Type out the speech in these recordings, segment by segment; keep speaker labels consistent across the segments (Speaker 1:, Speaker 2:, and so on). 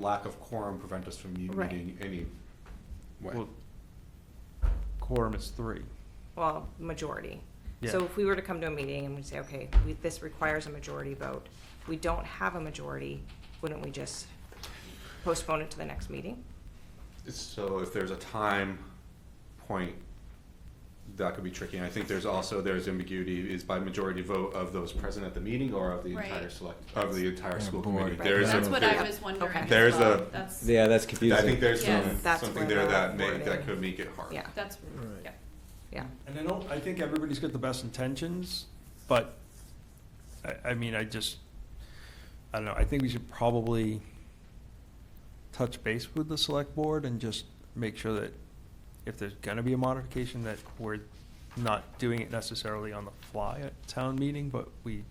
Speaker 1: lack of quorum prevent us from u-
Speaker 2: Right.
Speaker 1: meeting any way.
Speaker 3: Well, Quorum is three.
Speaker 2: well, majority. So
Speaker 3: Yeah.
Speaker 2: if we were to come to a meeting and we say, okay, we, this requires a majority vote, we don't have a majority, wouldn't we just postpone it to the next meeting?
Speaker 1: So if there's a time point, that could be tricky. And I think there's also, there's ambiguity is by majority vote of those present at the meeting or of the entire
Speaker 4: Right.
Speaker 1: select, of the entire
Speaker 5: Yeah,
Speaker 1: school
Speaker 5: board.
Speaker 1: committee.
Speaker 2: Right.
Speaker 1: There is,
Speaker 4: That's
Speaker 1: a-
Speaker 4: what I was wondering
Speaker 2: Okay.
Speaker 4: as
Speaker 1: There's
Speaker 4: well.
Speaker 1: a-
Speaker 4: That's,
Speaker 5: Yeah, that's confusing.
Speaker 1: I think there's some,
Speaker 4: Yes.
Speaker 2: That's
Speaker 1: something
Speaker 2: where
Speaker 1: there
Speaker 2: the
Speaker 1: that may,
Speaker 2: board
Speaker 1: that
Speaker 2: is.
Speaker 1: could make it hard.
Speaker 2: Yeah,
Speaker 4: that's,
Speaker 5: Right.
Speaker 4: yeah.
Speaker 2: yeah.
Speaker 3: And I don't, I think everybody's got the best intentions, but I, I mean, I just, I don't know, I think we should probably touch base with the select board and just make sure that if there's gonna be a modification, that we're not doing it necessarily on the fly at town meeting, but we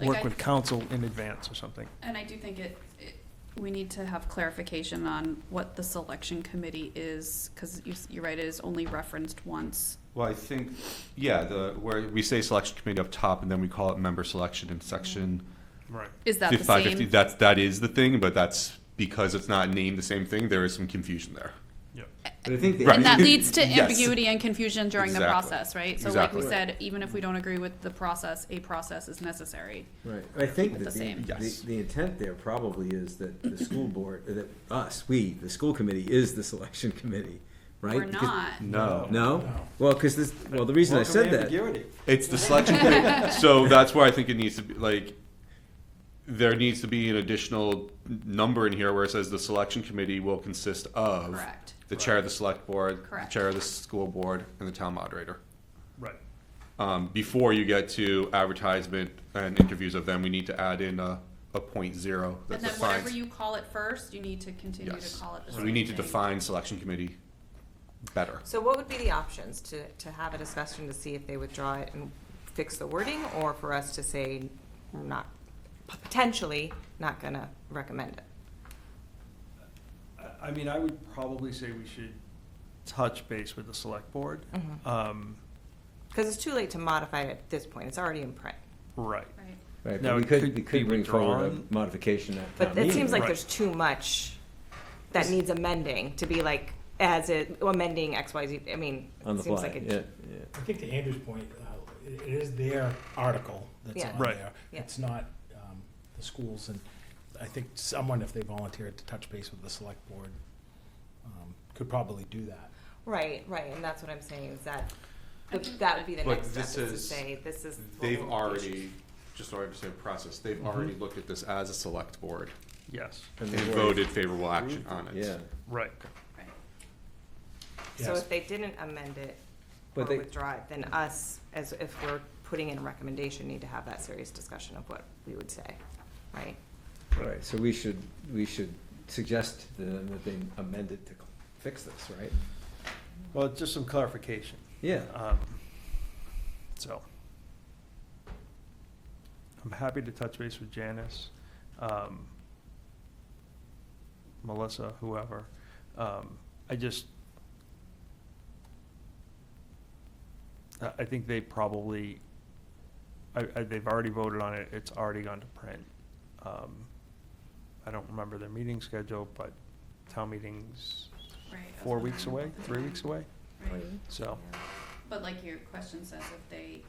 Speaker 4: Like
Speaker 3: work
Speaker 4: I-
Speaker 3: with council in advance or something.
Speaker 4: And I do think it, it, we need to have clarification on what the selection committee is, because you, s- you're right, it is only referenced once.
Speaker 1: Well, I think, yeah, the, where we say selection committee up top and then we call it member selection in section
Speaker 3: Right.
Speaker 4: Is that the
Speaker 1: 5550.
Speaker 4: same?
Speaker 1: That's, that is the thing, but that's because it's not named the same thing, there is some confusion there.
Speaker 3: Yep.
Speaker 5: But I think the-
Speaker 1: Right.
Speaker 4: And that leads to
Speaker 1: Yes.
Speaker 4: ambiguity and confusion during the
Speaker 1: Exactly.
Speaker 4: process, right? So like we
Speaker 1: Exactly.
Speaker 4: said, even if we don't agree with the process, a process is necessary.
Speaker 5: Right, I think
Speaker 4: But
Speaker 5: that
Speaker 4: the
Speaker 5: the,
Speaker 4: same.
Speaker 5: the,
Speaker 1: Yes.
Speaker 5: the intent there probably is that the school board, that us, we, the school committee is the selection committee, right?
Speaker 4: We're
Speaker 5: Because-
Speaker 4: not,
Speaker 1: No.
Speaker 5: No? Well, cause this, well, the reason I said that,
Speaker 3: ambiguity.
Speaker 1: It's the selection committee. So that's where I think it needs to be like there needs to be an additional n- number in here where it says the selection committee will consist of
Speaker 4: correct.
Speaker 1: the chair of the select board,
Speaker 4: Correct.
Speaker 1: the chair of the school board, and the town moderator.
Speaker 3: Right.
Speaker 1: Um, before you get to advertisement and interviews of them, we need to add in a, a point zero that
Speaker 4: And then whatever
Speaker 1: defines.
Speaker 4: you call it first, you need to continue to
Speaker 1: yes.
Speaker 4: call it the
Speaker 1: so
Speaker 4: same
Speaker 1: we need to
Speaker 4: thing.
Speaker 1: define selection committee better.
Speaker 2: So what would be the options to, to have a discussion to see if they withdraw it and fix the wording, or for us to say, we're not, potentially not gonna recommend it?
Speaker 3: I- I mean, I would probably say we should touch base with the select board.
Speaker 2: Mhm.
Speaker 3: Um,
Speaker 2: Because it's too late to modify it at this point, it's already in print.
Speaker 3: Right.
Speaker 4: Right.
Speaker 5: right,
Speaker 3: No,
Speaker 5: but we
Speaker 3: it could
Speaker 5: could, we
Speaker 3: be
Speaker 5: could bring forward
Speaker 3: withdrawn.
Speaker 5: a modification at town
Speaker 2: But it seems
Speaker 5: meeting.
Speaker 2: like
Speaker 3: Right.
Speaker 2: there's too much that needs amending to be like, as it, oh, amending X, Y, Z, I mean,
Speaker 5: On
Speaker 2: it
Speaker 5: the
Speaker 2: seems
Speaker 5: fly,
Speaker 2: like
Speaker 5: yeah,
Speaker 2: it.
Speaker 5: yeah.
Speaker 6: I think to Andrew's point, uh, it it is their article that's
Speaker 2: Yeah.
Speaker 6: on
Speaker 3: Right.
Speaker 6: there.
Speaker 2: Yeah.
Speaker 6: It's not um, the schools, and I think someone, if they volunteered to touch base with the select board, um, could probably do that.
Speaker 2: Right, right, and that's what I'm saying, is that,
Speaker 4: I think-
Speaker 2: that would be the
Speaker 1: But
Speaker 2: next step, is
Speaker 1: this
Speaker 2: to
Speaker 1: is-
Speaker 2: say, this is. what
Speaker 1: They've
Speaker 2: we'll-
Speaker 1: already, just so I understand the process, they've
Speaker 5: Mm-hmm.
Speaker 1: already looked at this as a select board.
Speaker 3: Yes,
Speaker 5: And
Speaker 1: and
Speaker 5: the board-
Speaker 1: voted favorable action on it.
Speaker 5: Yeah,
Speaker 3: right.
Speaker 4: Right.
Speaker 2: So
Speaker 6: Yes.
Speaker 2: if they didn't amend it or
Speaker 5: But they-
Speaker 2: withdraw it, then us, as if we're putting in a recommendation, need to have that serious discussion of what we would say, right?
Speaker 5: right, so we should, we should suggest to them that they amend it to cl- fix this, right?
Speaker 3: Well, just some clarification.
Speaker 5: Yeah,
Speaker 3: Um, So. I'm happy to touch base with Janice, um, Melissa, whoever. Um, I just. I, I think they probably, I, I, they've already voted on it, it's already gone to print. Um, I don't remember their meeting schedule, but town meeting's
Speaker 4: Right, I was
Speaker 3: four weeks away,
Speaker 4: wondering about
Speaker 3: three
Speaker 4: that.
Speaker 3: weeks away,
Speaker 4: Right.
Speaker 3: so.
Speaker 4: But like your question says, if they,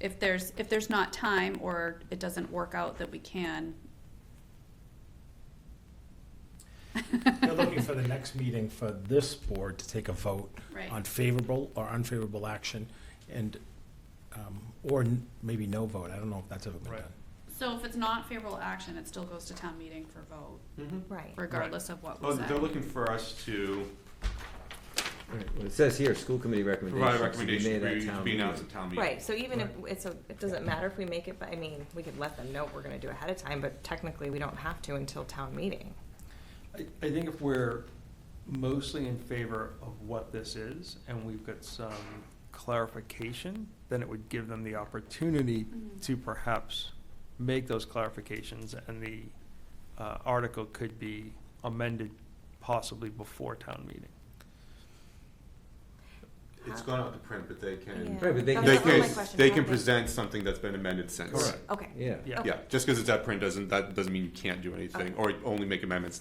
Speaker 4: if there's, if there's not time or it doesn't work out that we can.
Speaker 6: They're looking for the next meeting for this board to take a vote
Speaker 4: Right.
Speaker 6: on favorable or unfavorable action, and, um, or n- maybe no vote. I don't know if that's ever been
Speaker 3: Right.
Speaker 6: done.
Speaker 4: So if it's not favorable action, it still goes to town meeting for vote,
Speaker 2: Right.
Speaker 4: regardless of what
Speaker 1: Well,
Speaker 4: was said.
Speaker 1: Oh, they're looking for us to
Speaker 5: Right, well, it says here, school committee
Speaker 1: provide
Speaker 5: recommendations
Speaker 1: a
Speaker 5: to be
Speaker 1: recommendation
Speaker 5: made
Speaker 1: for
Speaker 5: at
Speaker 1: you to
Speaker 5: town
Speaker 1: be
Speaker 5: meeting.
Speaker 1: announced at town meeting.
Speaker 2: Right, so even if, it's a, it doesn't matter if we make it, but, I mean, we could let them know we're gonna do ahead of time, but technically, we don't have to until town meeting.
Speaker 3: I, I think if we're mostly in favor of what this is, and we've got some clarification, then it would give them the opportunity
Speaker 4: Mhm.
Speaker 3: to perhaps make those clarifications, and the uh, article could be amended possibly before town meeting.
Speaker 1: It It's
Speaker 2: have-
Speaker 1: gone out to print, but they can,
Speaker 2: Yeah.
Speaker 5: Right, but they
Speaker 2: That
Speaker 5: can-
Speaker 1: they
Speaker 2: was one of my
Speaker 1: can,
Speaker 2: questions,
Speaker 1: they
Speaker 2: how
Speaker 1: can
Speaker 2: they-
Speaker 1: present something that's been amended since.
Speaker 3: Correct.
Speaker 2: Okay.
Speaker 5: Yeah.
Speaker 3: Yeah.
Speaker 1: Yeah, just because it's at print doesn't, that doesn't mean you can't do anything, or only make amendments